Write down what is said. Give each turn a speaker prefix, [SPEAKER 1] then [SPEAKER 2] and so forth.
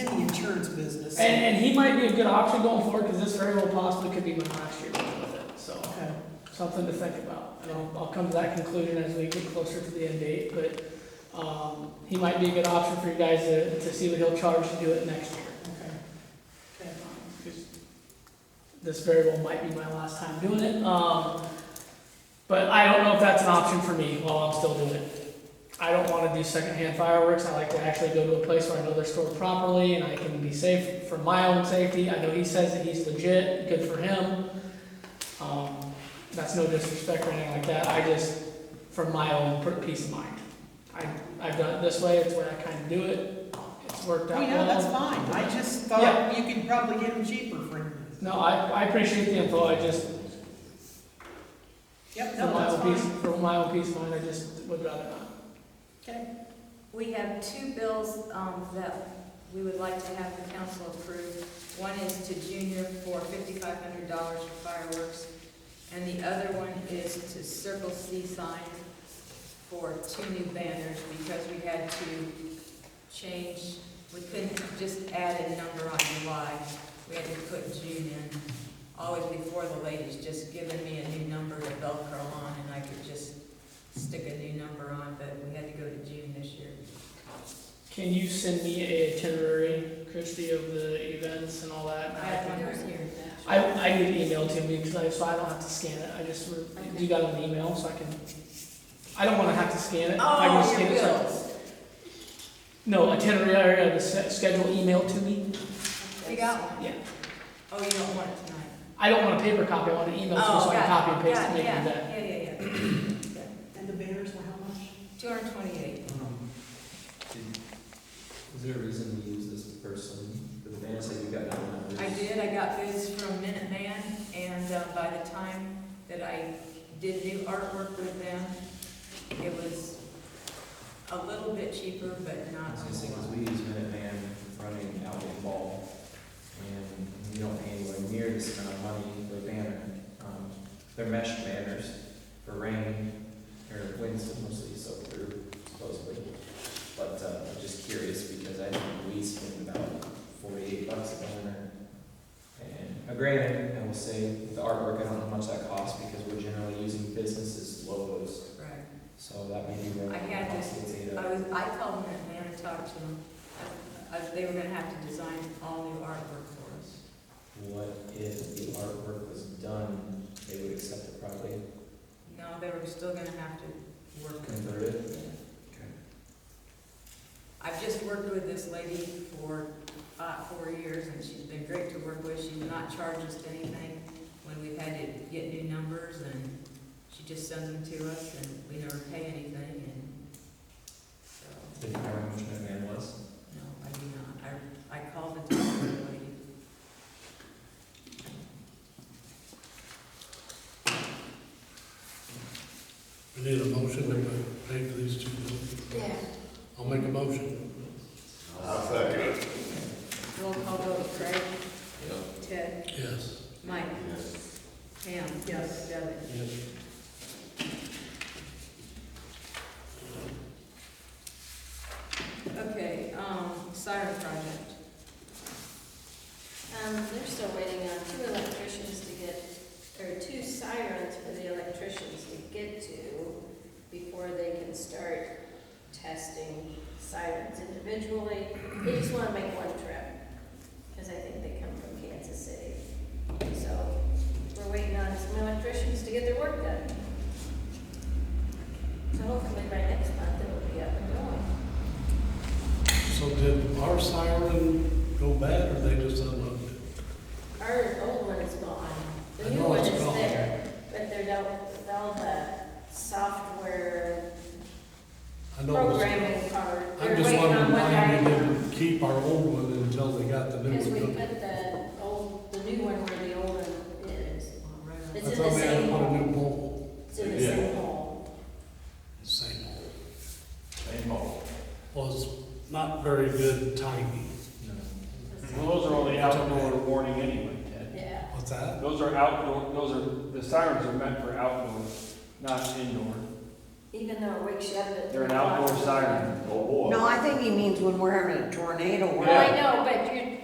[SPEAKER 1] insurance business.
[SPEAKER 2] And, and he might be a good option going forward, because this very well possibly could be my last year with it, so,
[SPEAKER 1] Okay,
[SPEAKER 2] something to think about. And I'll, I'll come to that conclusion as we get closer to the end date, but, um, he might be a good option for you guys to, to see what he'll charge to do it next year.
[SPEAKER 1] okay. Okay.
[SPEAKER 2] This very well might be my last time doing it, um, but I don't know if that's an option for me while I'm still doing it. I don't wanna do secondhand fireworks, I like to actually go to a place where I know they're stored properly and I can be safe for my own safety, I know he says that he's legit, good for him. Um, that's no disrespect or anything like that, I just, for my own per- peace of mind. I, I've done it this way, it's the way I kinda do it, it's worked out
[SPEAKER 1] Well,
[SPEAKER 2] well.
[SPEAKER 1] Oh, yeah, that's fine. I just thought you could probably get them cheaper for.
[SPEAKER 2] No, I, I appreciate the info, I just,
[SPEAKER 1] Yep,
[SPEAKER 2] for
[SPEAKER 1] no,
[SPEAKER 2] my own
[SPEAKER 1] that's
[SPEAKER 2] peace,
[SPEAKER 1] fine.
[SPEAKER 2] for my own peace of mind, I just would rather not.
[SPEAKER 1] Okay,
[SPEAKER 3] We have two bills um, that we would like to have the council approve. One is to Junior for fifty-five hundred dollars for fireworks, and the other one is to Circle C sign for two new banners, because we had to change, we couldn't just add a number on July, we had to put June in. Always before, the lady's just given me a new number to Velcro on, and I could just stick a new number on, but we had to go to June this year.
[SPEAKER 2] Can you send me a itinerary, Christie, of the events and all that?
[SPEAKER 3] I have one
[SPEAKER 2] can-
[SPEAKER 3] right here.
[SPEAKER 2] I, I need it emailed to me, because I, so I don't have to scan it, I just, re- you got an email, so I can, I don't wanna have to scan it. If I can
[SPEAKER 3] Oh, your
[SPEAKER 2] scan it, so I-
[SPEAKER 3] bills.
[SPEAKER 2] No, itinerary, of the se- schedule emailed to me,
[SPEAKER 3] You got one?
[SPEAKER 2] yeah.
[SPEAKER 3] Oh, you don't want it tonight?
[SPEAKER 2] I don't want a paper copy, I want an email to you,
[SPEAKER 3] Oh,
[SPEAKER 2] so I can copy and paste it, and make it that.
[SPEAKER 3] Yeah, yeah, yeah.
[SPEAKER 1] and the banners were how much?
[SPEAKER 3] Two hundred and twenty-eight.
[SPEAKER 4] Um, did- Was there a reason to use this person? The man said you got no numbers.
[SPEAKER 3] I did, I got bids from Minute Man, and uh, by the time that I did new artwork with them, it was a little bit cheaper, but
[SPEAKER 4] I
[SPEAKER 3] not.
[SPEAKER 4] was gonna say, 'cause we use Minuteman running out in ball, and you don't pay anywhere near this amount of money for a banner. Um, They're mesh banners for rain, or winds mostly soak through supposedly. But, uh, I'm just curious, because I think we spend about forty-eight bucks a banner. And, uh, granted, I will say, with the artwork, I don't know how much that costs, because we're generally using businesses' logos,
[SPEAKER 3] Right.
[SPEAKER 4] so that may be where.
[SPEAKER 3] I had this-
[SPEAKER 4] Data.
[SPEAKER 3] I was, I called Minute Man and talked to them. I- I- They were gonna have to design all new artwork for us.
[SPEAKER 4] What if the artwork was done, they would accept it probably,
[SPEAKER 3] No, they were still gonna have to work with
[SPEAKER 4] convert it?
[SPEAKER 3] it. I've just worked with this lady for about four years, and she's been great to work with. She's not charged us anything when we've had to get new numbers, and she just sends them to us, and we never pay anything, and so,
[SPEAKER 4] Did you know how much that man was?
[SPEAKER 3] no, I do not. I, I called and talked to the lady.
[SPEAKER 5] We need a motion to pay for these two bills.
[SPEAKER 3] Yeah.
[SPEAKER 5] I'll make a motion.
[SPEAKER 6] I'll second it.
[SPEAKER 3] Roll call vote, Craig? Ted?
[SPEAKER 5] Yes.
[SPEAKER 3] Mike?
[SPEAKER 6] Yes.
[SPEAKER 3] Pam?
[SPEAKER 1] Yes.
[SPEAKER 3] Devin?
[SPEAKER 5] Yes.
[SPEAKER 3] Okay, um, siren project.
[SPEAKER 7] Um, they're still waiting on two electricians to get, or two sirens for the electricians to get to before they can start testing sirens individually. They just wanna make one trip, because I think they come from Kansas City. So, we're waiting on some electricians to get their work done. So hopefully by next month it'll be up and going.
[SPEAKER 5] So did our siren go bad or they just unloaded it?
[SPEAKER 7] Our old one is gone,
[SPEAKER 5] I
[SPEAKER 7] the new
[SPEAKER 5] know
[SPEAKER 7] one
[SPEAKER 5] it's
[SPEAKER 7] is
[SPEAKER 5] gone.
[SPEAKER 7] there, but they're not, with all the software
[SPEAKER 5] I know it was-
[SPEAKER 7] programming part.
[SPEAKER 5] I'm
[SPEAKER 7] They're
[SPEAKER 5] just
[SPEAKER 7] waiting on
[SPEAKER 5] wondering
[SPEAKER 7] one
[SPEAKER 5] why we
[SPEAKER 7] guy.
[SPEAKER 5] didn't keep our old one until they got the new
[SPEAKER 7] Because we
[SPEAKER 5] one. done.
[SPEAKER 7] put the old, the new one where the old one is,
[SPEAKER 3] Right.
[SPEAKER 7] It's
[SPEAKER 5] I
[SPEAKER 7] in
[SPEAKER 5] thought
[SPEAKER 7] the
[SPEAKER 5] we had to
[SPEAKER 7] same
[SPEAKER 5] put a new
[SPEAKER 7] hole.
[SPEAKER 5] pole.
[SPEAKER 7] it's in the
[SPEAKER 6] Yeah.
[SPEAKER 7] same hole.
[SPEAKER 5] Same hole.
[SPEAKER 6] Same hole.
[SPEAKER 5] Well, it's not very good timing.
[SPEAKER 4] No.
[SPEAKER 8] Well, those are only outdoor warning anyway, Ted.
[SPEAKER 7] Yeah,
[SPEAKER 5] What's that?
[SPEAKER 8] Those are outdoor, those are, the sirens are meant for outdoor, not indoor.
[SPEAKER 7] even though it wakes you up at.
[SPEAKER 8] They're an outdoor siren.
[SPEAKER 6] Oh, boy.
[SPEAKER 9] No, I think he means when we're having a tornado.
[SPEAKER 7] Well, I know, but